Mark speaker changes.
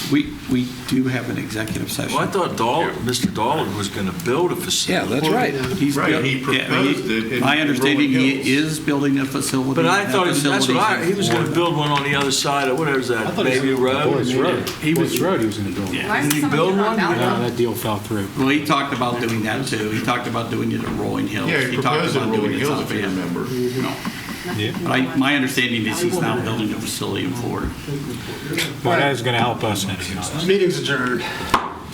Speaker 1: We, we do have an executive session.
Speaker 2: Well, I thought Dahl, Mr. Dolan was going to build a
Speaker 1: Yeah,
Speaker 2: facility.
Speaker 1: that's right. He's
Speaker 3: Right,
Speaker 1: built-
Speaker 3: he
Speaker 1: yeah, I mean,
Speaker 3: proposed it in
Speaker 1: My understanding,
Speaker 3: Rolling
Speaker 1: he
Speaker 3: Hills.
Speaker 1: is building a facility.
Speaker 2: But I
Speaker 1: and that
Speaker 2: thought, he was- that's what I,
Speaker 1: facility's
Speaker 2: he was going to
Speaker 1: for-
Speaker 2: build one on the other side of, whatever's that, Bayview
Speaker 4: Boyd's
Speaker 2: Road?
Speaker 4: Road.
Speaker 1: He was-
Speaker 4: Boyd's Road, he was going to build.
Speaker 1: Yeah.
Speaker 4: it.
Speaker 5: Why
Speaker 2: Didn't
Speaker 5: is
Speaker 2: he
Speaker 5: someone
Speaker 2: build
Speaker 5: doing
Speaker 2: one?
Speaker 5: on
Speaker 4: No,
Speaker 5: Ballard?
Speaker 4: that deal fell through.
Speaker 1: Well, he talked about doing that too. He talked about doing it at Rolling Hills.
Speaker 3: Yeah, he
Speaker 1: talked
Speaker 3: proposed it
Speaker 1: about
Speaker 3: in
Speaker 1: doing
Speaker 3: Rolling
Speaker 1: it
Speaker 3: Hills,
Speaker 1: up
Speaker 3: if you
Speaker 1: in-
Speaker 3: remember.
Speaker 1: No.
Speaker 4: Yeah.
Speaker 1: But I, my understanding is he's now building a facility in Florida.
Speaker 4: Well, that is going to help us. anyhow.
Speaker 6: Meeting's adjourned.